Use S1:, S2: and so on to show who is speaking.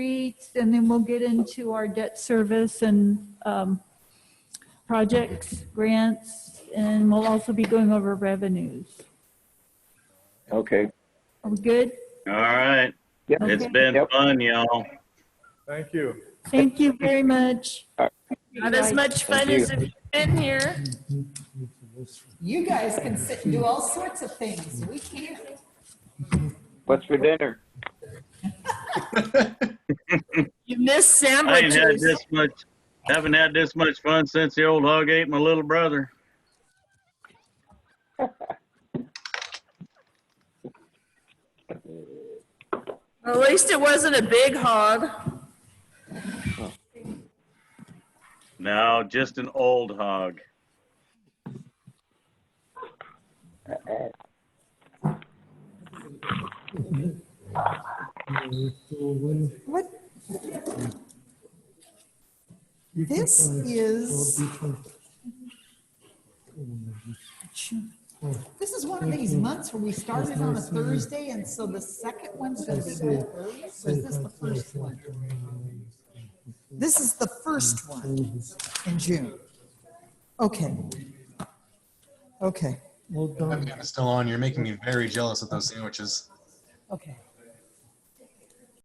S1: sheets, and then we'll get into our debt service and um, projects, grants, and we'll also be going over revenues.
S2: Okay.
S1: Are we good?
S3: All right.
S2: Yep.
S3: It's
S1: Okay.
S3: been
S2: Yep.
S3: fun, y'all.
S4: Thank you.
S1: Thank you very much.
S5: Not as much
S2: Thank
S5: fun
S2: you.
S5: as if you've been here.
S6: You guys can sit and do all sorts of things. We can't.
S2: What's for dinner?
S5: You missed
S3: I ain't had
S5: sandwiches.
S3: this much, haven't had this much fun since the old hog ate my little brother.
S5: At least it wasn't a big hog.
S3: No, just an old hog.
S6: What? This is, this is one of these months where we started on a Thursday, and so the second one's gonna be on a Thursday. Or is this the first one? This is the first one in June. Okay. Okay,
S7: That man is still on. You're making me very jealous of those sandwiches.
S6: okay.